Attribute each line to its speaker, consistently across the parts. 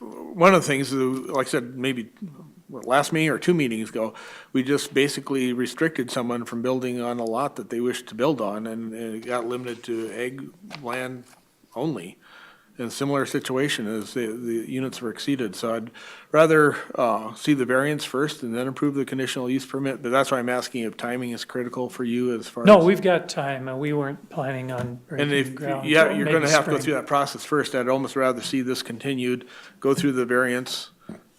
Speaker 1: one of the things, uh, like I said, maybe what, last meeting or two meetings ago, we just basically restricted someone from building on a lot that they wished to build on, and and it got limited to egg land only. And similar situation is the, the units were exceeded, so I'd rather, uh, see the variance first and then approve the conditional use permit, but that's why I'm asking if timing is critical for you as far as.
Speaker 2: No, we've got time, and we weren't planning on
Speaker 1: And if,
Speaker 2: breaking ground.
Speaker 1: yeah,
Speaker 2: till
Speaker 1: you're
Speaker 2: maybe
Speaker 1: gonna have to go
Speaker 2: spring.
Speaker 1: through that process first, I'd almost rather see this continued, go through the variance.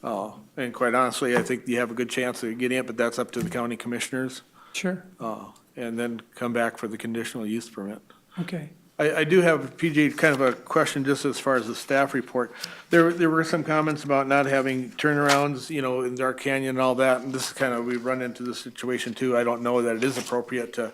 Speaker 1: Uh, and quite honestly, I think you have a good chance of getting it, but that's up to the county commissioners,
Speaker 2: Sure,
Speaker 1: uh, and then come back for the conditional use permit.
Speaker 2: okay.
Speaker 1: I, I do have, PJ, kind of a question just as far as the staff report. There, there were some comments about not having turnarounds, you know, in Dark Canyon and all that, and this is kind of, we've run into this situation too. I don't know that it is appropriate to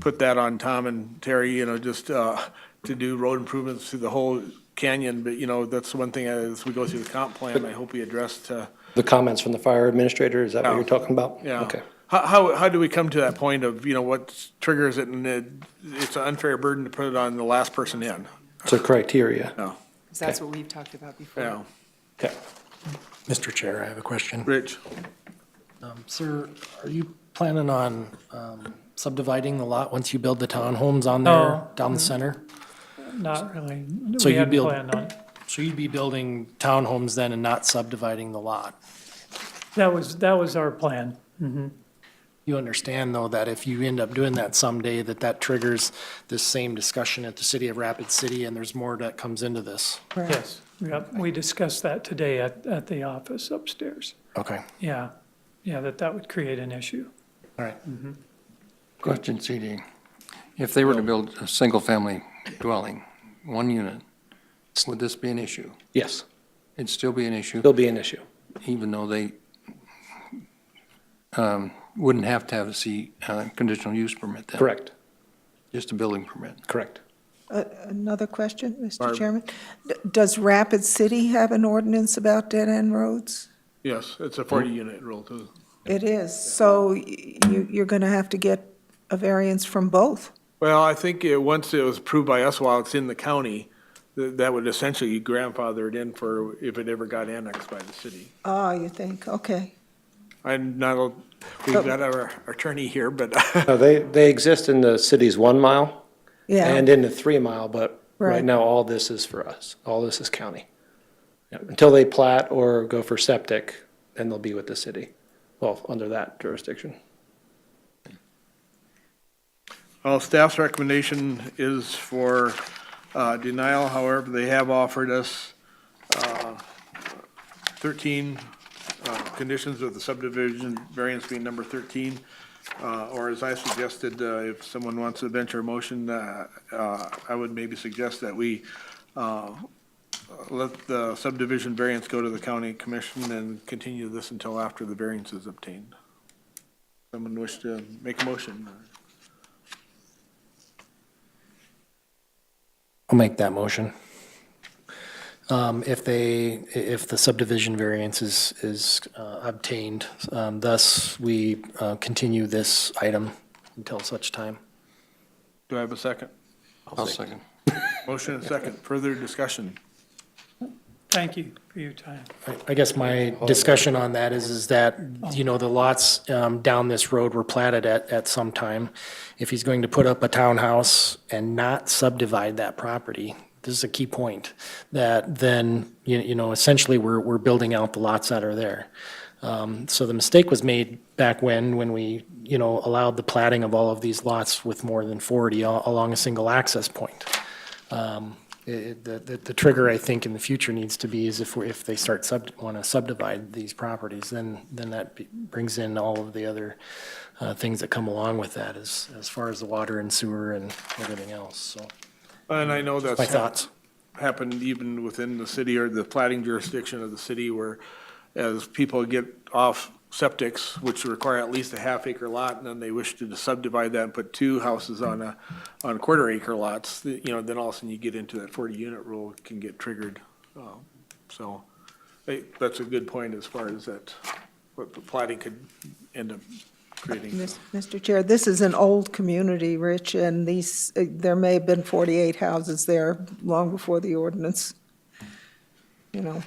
Speaker 1: put that on Tom and Terry, you know, just, uh, to do road improvements through the whole canyon, but, you know, that's one thing, uh, as we go through the comp plan, I hope we addressed, uh,
Speaker 3: The comments from the fire administrator, is that what you're talking about?
Speaker 1: yeah.
Speaker 3: Okay.
Speaker 1: How, how, how do we come to that point of, you know, what triggers it, and it, it's an unfair burden to put it on the last person in?
Speaker 3: So criteria.
Speaker 1: No,
Speaker 4: 'Cause that's what we've talked about before.
Speaker 1: yeah,
Speaker 3: Okay.
Speaker 5: Mr. Chair, I have a question.
Speaker 1: Rich?
Speaker 5: Um, Sir, are you planning on um, subdividing the lot once you build the townhomes on there
Speaker 2: No.
Speaker 5: down the center?
Speaker 2: Not really.
Speaker 5: So
Speaker 2: We
Speaker 5: you
Speaker 2: hadn't
Speaker 5: build-
Speaker 2: planned on it.
Speaker 5: So you'd be building townhomes then and not subdividing the lot?
Speaker 2: That was, that was our plan.
Speaker 5: You understand, though, that if you end up doing that someday, that that triggers this same discussion at the city of Rapid City, and there's more that comes into this?
Speaker 2: Yes. Yep, we discussed that today at, at the office upstairs.
Speaker 5: Okay,
Speaker 2: Yeah, yeah, that that would create an issue.
Speaker 5: all right.
Speaker 6: Question, CD. If they were to build a single-family dwelling, one unit, would this be an issue?
Speaker 3: Yes,
Speaker 6: It'd still be an issue,
Speaker 3: there'll be an issue.
Speaker 6: even though they um, wouldn't have to have a C, uh, conditional use permit then?
Speaker 3: Correct,
Speaker 6: Just a building permit.
Speaker 3: correct.
Speaker 7: Another question, Mr. Chairman. D- Does Rapid City have an ordinance about dead-end roads?
Speaker 1: Yes, it's a forty unit rule too.
Speaker 7: It is, so y- you, you're going to have to get a variance from both.
Speaker 1: Well, I think it, once it was approved by us while it's in the county, that, that would essentially grandfather it in for if it ever got annexed by the city.
Speaker 7: Ah, you think, okay.
Speaker 1: I'm not, a- we've got our attorney here, but
Speaker 3: No, They, they exist in the city's one mile
Speaker 7: Yeah,
Speaker 3: and in the three mile, but right
Speaker 7: Right.
Speaker 3: now, all this is for us. All this is county. Yeah, Until they plat or go for septic, then they'll be with the city, well, under that jurisdiction.
Speaker 1: Well, staff's recommendation is for uh, denial, however, they have offered us uh, 13 uh, conditions with the subdivision variance being number 13, uh, or as I suggested, uh, if someone wants to venture a motion, uh, uh, I would maybe suggest that we uh, let the subdivision variance go to the county commission and continue this until after the variance is obtained. Someone wish to make a motion?
Speaker 5: I'll make that motion. Um, If they, if the subdivision variance is, is uh, obtained, um, thus we uh, continue this item until such time.
Speaker 1: Do I have a second?
Speaker 6: I'll second.
Speaker 1: Motion and second, further discussion.
Speaker 2: Thank you for your time.
Speaker 5: I- I guess my discussion on that is, is that, you know, the lots um, down this road were platted at, at some time. If he's going to put up a townhouse and not subdivide that property, this is a key point, that then, you you know, essentially, we're, we're building out the lots that are there. Um, So the mistake was made back when, when we, you know, allowed the platting of all of these lots with more than 40 al- along a single access point it- uh, The, the- the trigger, I think, in the future needs to be is if, we- if they start sub, want to subdivide these properties, then, then that be- brings in all of the other uh, things that come along with that as, as far as the water and sewer and everything else, so.
Speaker 1: And I know that's.
Speaker 5: My thoughts.
Speaker 1: Happened even within the city or the plating jurisdiction of the city where as people get off septics, which require at least a half acre lot, and then they wish to subdivide that and put two houses on a, on quarter acre lots, th- you know, then all of a sudden you get into that forty unit rule can get triggered. Um, So, I- that's a good point as far as that, what the plating could end up creating.
Speaker 7: Mis- Mr. Chair, this is an old community, Rich, and these, uh, there may have been 48 houses there long before the ordinance, you know.